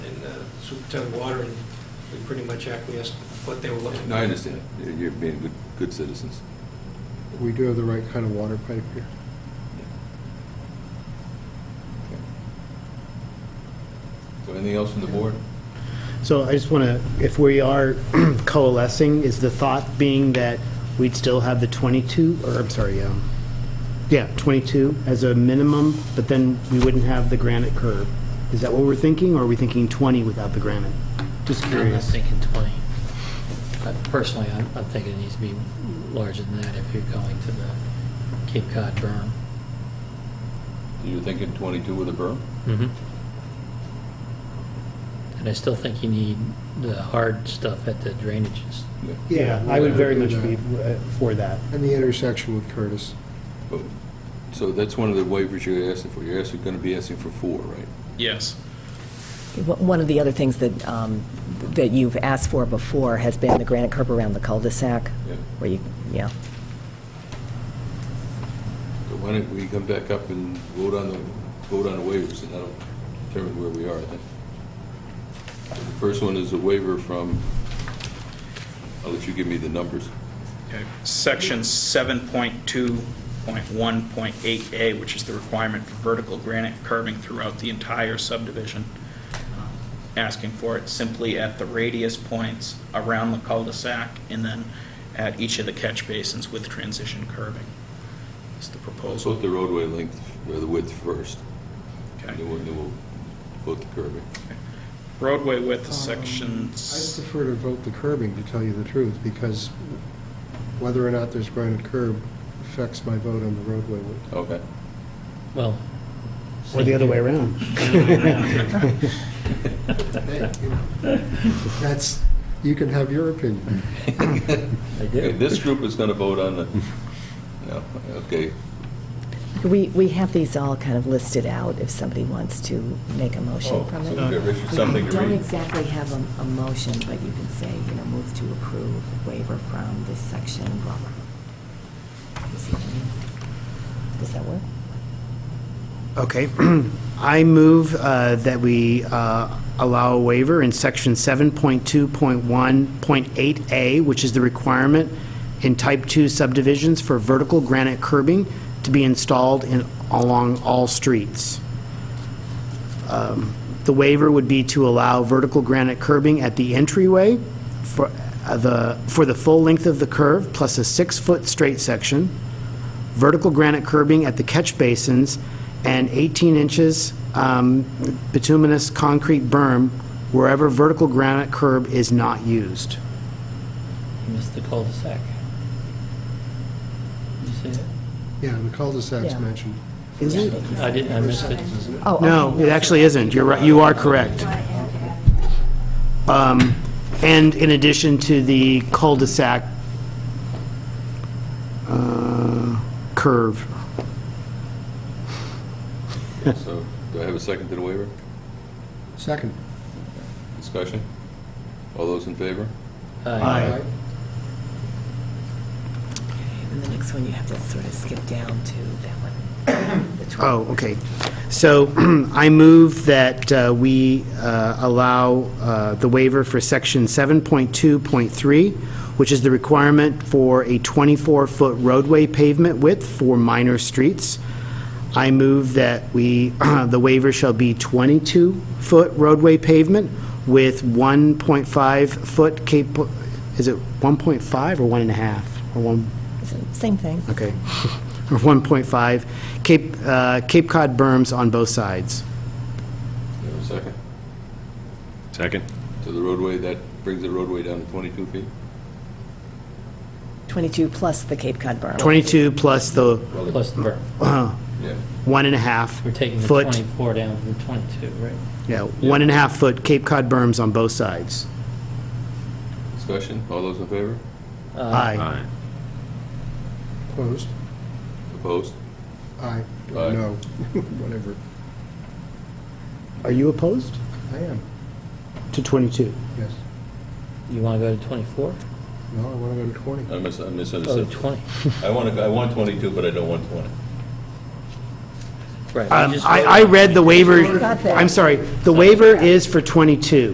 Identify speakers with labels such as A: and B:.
A: uh, Superintendent Water, and we pretty much acquiesced what they were looking.
B: No, I understand. You're- You're being good, good citizens.
C: We do have the right kind of water pipe here.
B: So anything else from the board?
D: So I just want to, if we are coalescing, is the thought being that we'd still have the 22, or I'm sorry, um, yeah, 22 as a minimum, but then we wouldn't have the granite curb? Is that what we're thinking, or are we thinking 20 without the granite? Just
E: I'm not
D: curious.
E: thinking 20. Uh, Personally, I'm, I'm thinking it needs to be larger than that if you're going to the Cape Cod berm.
B: You're thinking 22 with a berm?
E: And I still think you need the hard stuff at the drainages.
B: Yeah.
D: Yeah, I would very much be uh, for that.
C: And the intersection with Curtis.
B: But- So that's one of the waivers you're asking for. You're asking, going to be asking for four, right?
F: Yes.
G: One of the other things that, um, that you've asked for before has been the granite curb around the cul-de-sac,
B: Yeah.
G: where you, yeah.
B: So why don't we come back up and vote on the, vote on the waivers, and that'll determine where we are, I think. So The first one is a waiver from, I'll let you give me the numbers.
F: Okay. Section 7.2.1.8A, which is the requirement for vertical granite curbing throughout the entire subdivision, um, asking for it simply at the radius points around the cul-de-sac, and then at each of the catch basins with transition curbing. Is the
B: Let's
F: proposal.
B: vote the roadway length, or the width first, and
F: Okay.
B: then we'll, then we'll vote the curbing.
F: Roadway width is
C: Um,
F: section,
C: I prefer to vote the curbing, to tell you the truth, because whether or not there's granite curb affects my vote on the roadway.
B: Okay.
E: Well.
D: Or the other way around.
C: That's, you can have your opinion.
E: I
B: Okay,
E: do.
B: This group is going to vote on the, no, okay,
G: We, we have these all kind of listed out if somebody wants to make a
B: Oh,
G: motion from
B: so
G: it.
B: we got Richard something to
G: We Don't
B: read.
G: exactly have a, a motion, but you can say, you know, move to approve waiver from this section, blah, blah. You see what I mean? Does that work?
D: Okay. I move uh, that we uh, allow a waiver in Section 7.2.1.8A, which is the requirement in Type 2 subdivisions for vertical granite curbing to be installed in, along all streets. Um, The waiver would be to allow vertical granite curbing at the entryway for uh, the, for the full length of the curve, plus a six-foot straight section, vertical granite curbing at the catch basins, and 18 inches um, bituminous concrete berm wherever vertical granite curb is not used.
E: You missed the cul-de-sac. You see it?
C: Yeah, and the cul-de-sac's
G: Yeah.
C: mentioned.
D: Is it?
E: I didn't, I missed it.
G: Oh, okay.
D: No, it actually isn't. You're right, you are correct. Um, And in addition to the cul-de-sac uh, curve.
B: So, do I have a second to the waiver?
C: Second.
B: Discussion? All those in favor?
E: Aye.
D: Aye.
G: And the next one, you have to sort of skip down to that one. the 12.
D: Oh, okay. So I move that uh, we uh, allow uh, the waiver for Section 7.2.3, which is the requirement for a 24-foot roadway pavement width for minor streets. I move that we, the waiver shall be 22-foot roadway pavement with 1.5-foot cap, is it 1.5 or 1.5? Or 1?
G: Same thing.
D: Okay. Or 1.5, Cape, uh, Cape Cod berms on both sides.
B: Do I have a second?
H: Second.
B: So the roadway, that brings the roadway down to 22 feet?
G: 22 plus the Cape Cod berm.
D: 22 plus the
E: Plus the berm.
B: Yeah.
D: one and a half
E: We're taking the
D: foot.
E: 24 down to the 22, right?
D: Yeah, one and a half foot Cape Cod berms on both sides.
B: Discussion? All those in favor?
G: Uh,
D: Aye.
C: Opposed?
B: Opposed?
C: Aye.
B: Aye.
C: No. Whatever.
D: Are you opposed
C: I am,
D: to 22?
C: yes.
E: You want to go to 24?
C: No, I want to go to 20.
B: I mis- I
E: Oh,
B: misunderstood.
E: 20.
B: I want to, I want 22, but I don't want 20.
E: Right. we
D: Um,
E: just
D: I,
E: voted
D: Um, I
E: on
D: read the waiver,
G: Got that.
D: I'm sorry, the waiver is for 22.